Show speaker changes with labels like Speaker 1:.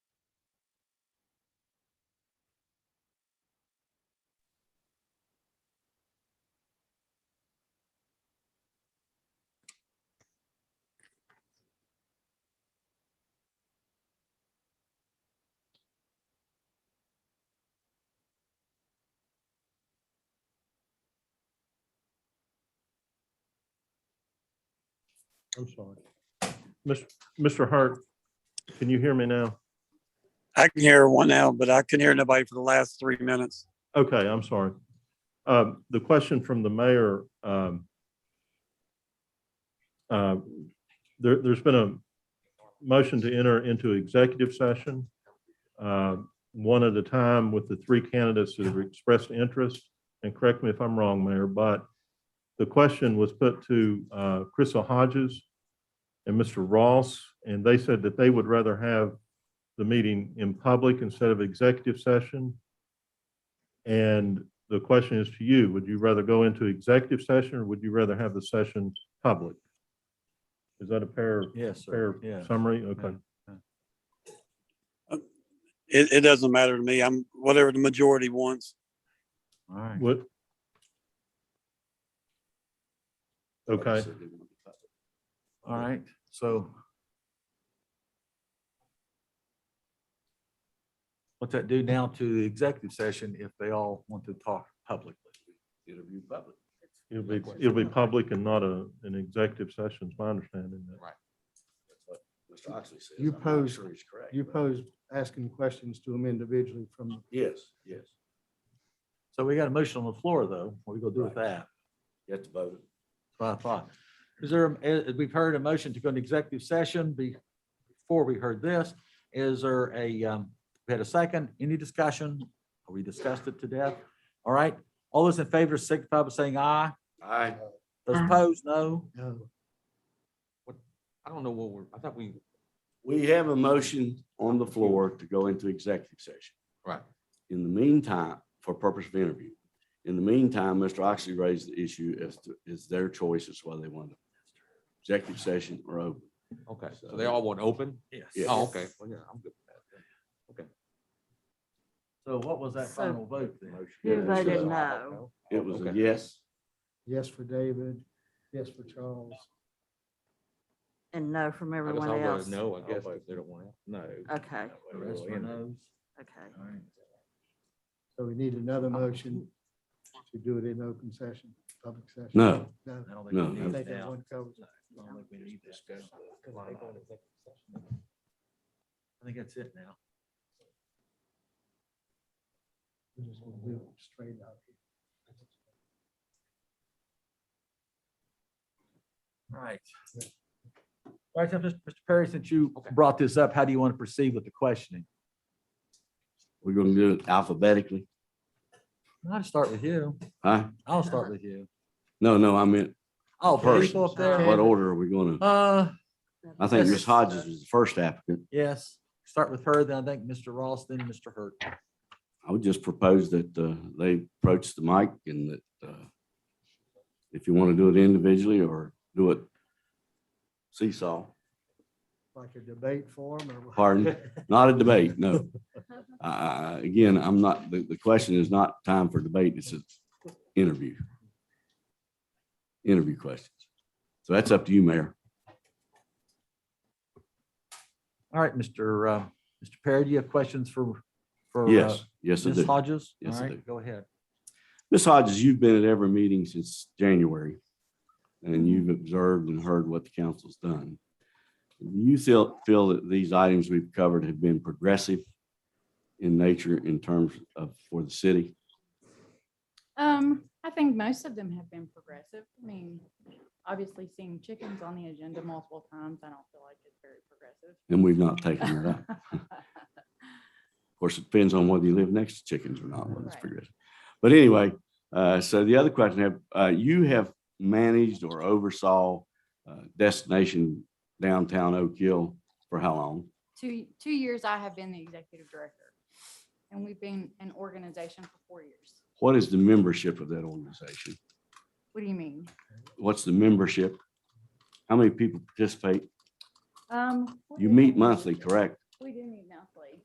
Speaker 1: I'm sorry. Mis- Mr. Hart, can you hear me now?
Speaker 2: I can hear one now, but I couldn't hear nobody for the last three minutes.
Speaker 1: Okay, I'm sorry. Um, The question from the mayor, um, uh, there, there's been a motion to enter into executive session, uh, one at a time with the three candidates that have expressed interest. And correct me if I'm wrong, Mayor, but the question was put to uh, Crystal Hodges and Mr. Ross, and they said that they would rather have the meeting in public instead of executive session. And the question is to you, would you rather go into executive session or would you rather have the session public? Is that a fair,
Speaker 3: Yes,
Speaker 1: fair
Speaker 3: sir. Yeah.
Speaker 1: summary? Okay.
Speaker 2: It, it doesn't matter to me. I'm whatever the majority wants.
Speaker 3: All right.
Speaker 1: What? Okay,
Speaker 3: All right. So. What's that do now to the executive session if they all want to talk publicly?
Speaker 4: Interview public.
Speaker 1: it'll be, it'll be public and not a, an executive session, is my understanding. that.
Speaker 4: That's what Mr. Oxley says.
Speaker 5: You
Speaker 4: I'm not
Speaker 5: posed-
Speaker 4: sure he's correct,
Speaker 5: You
Speaker 4: but-
Speaker 5: posed asking questions to them individually from,
Speaker 4: Yes, yes.
Speaker 3: So we got a motion on the floor, though. What are we gonna do with that?
Speaker 4: You have to vote.
Speaker 3: That's what I thought. Is there, eh, we've heard a motion to go into executive session be- before we heard this. Is there a, um, we had a second, any discussion? We discussed it to death. All right. All those in favor signify by saying aye.
Speaker 4: Aye.
Speaker 3: Those opposed, no.
Speaker 5: no,
Speaker 6: I don't know what we're, I thought we,
Speaker 4: We have a motion on the floor to go into executive session.
Speaker 6: Right.
Speaker 4: In the meantime, for purpose of interview. In the meantime, Mr. Oxley raised the issue as to, is their choice as whether they want to executive session or open.
Speaker 6: okay, so they all want open?
Speaker 3: Yes.
Speaker 4: Yeah.
Speaker 6: Oh, okay, well, yeah, I'm good.
Speaker 3: So what was that
Speaker 7: So-
Speaker 3: final vote then?
Speaker 7: You
Speaker 4: Yeah,
Speaker 7: voted
Speaker 4: so
Speaker 7: no.
Speaker 4: It was a
Speaker 6: Okay.
Speaker 4: yes.
Speaker 5: yes for David, yes for Charles.
Speaker 7: And no from
Speaker 6: I guess
Speaker 7: everyone
Speaker 6: I'll vote
Speaker 7: else?
Speaker 6: No, I guess,
Speaker 4: I'll
Speaker 6: if they don't want it.
Speaker 4: No.
Speaker 7: Okay,
Speaker 3: The rest were no's.
Speaker 7: okay.
Speaker 3: All right.
Speaker 5: So we need another motion to do it in open session, public session.
Speaker 4: No.
Speaker 5: No.
Speaker 3: I don't
Speaker 4: No,
Speaker 3: think we
Speaker 5: I
Speaker 3: need
Speaker 5: think
Speaker 3: that.
Speaker 5: that one covers it.
Speaker 3: I don't think we need that. I think that's it now.
Speaker 5: We're just gonna do it straight out.
Speaker 3: All right. All right, so Mr. Mr. Perry, since you brought this up, how do you want to proceed with the questioning?
Speaker 4: We're gonna do it alphabetically,
Speaker 3: I'll start with you.
Speaker 4: huh?
Speaker 3: I'll start with you.
Speaker 4: No, no, I meant,
Speaker 3: Oh, the
Speaker 4: First.
Speaker 3: people up
Speaker 4: what
Speaker 3: there.
Speaker 4: order are we gonna?
Speaker 3: Uh,
Speaker 4: I think
Speaker 3: Yes.
Speaker 4: Ms. Hodges was the first applicant.
Speaker 3: yes, start with her, then I think Mr. Ross, then Mr. Hurt.
Speaker 4: I would just propose that uh, they approach the mic and that uh, if you want to do it individually or do it seesaw,
Speaker 5: Like a debate form or.
Speaker 4: Pardon? not a debate, no. I- I- I- Again, I'm not, the, the question is not time for debate, it's an interview. Interview questions. So that's up to you, Mayor.
Speaker 3: All right, Mr. uh, Mr. Perry, do you have questions for, for? uh,
Speaker 4: Yes, yes, I
Speaker 3: Ms.
Speaker 4: do.
Speaker 3: Hodges?
Speaker 4: Yes,
Speaker 3: All
Speaker 4: I
Speaker 3: right,
Speaker 4: do.
Speaker 3: Go ahead.
Speaker 4: Ms. Hodges, you've been at every meeting since January, and you've observed and heard what the council's done. Do you feel, feel that these items we've covered have been progressive in nature in terms of, for the city?
Speaker 8: Um, I think most of them have been progressive. I mean, obviously seeing chickens on the agenda multiple times, I don't feel like it's very progressive.
Speaker 4: And we've not taken that up. Of course, it depends on whether you live next to chickens or not, whether it's
Speaker 8: Right.
Speaker 4: progressive. But anyway, uh, so the other question, have, uh, you have managed or oversaw uh, destination downtown Oak Hill for how long?
Speaker 8: Two, two years I have been the executive director and we've been an organization for four years.
Speaker 4: What is the membership of that organization?
Speaker 8: What do you mean?
Speaker 4: What's the membership? How many people participate?
Speaker 8: Um. what
Speaker 4: You
Speaker 8: do
Speaker 4: meet
Speaker 8: we-
Speaker 4: monthly, correct?
Speaker 8: We do meet now.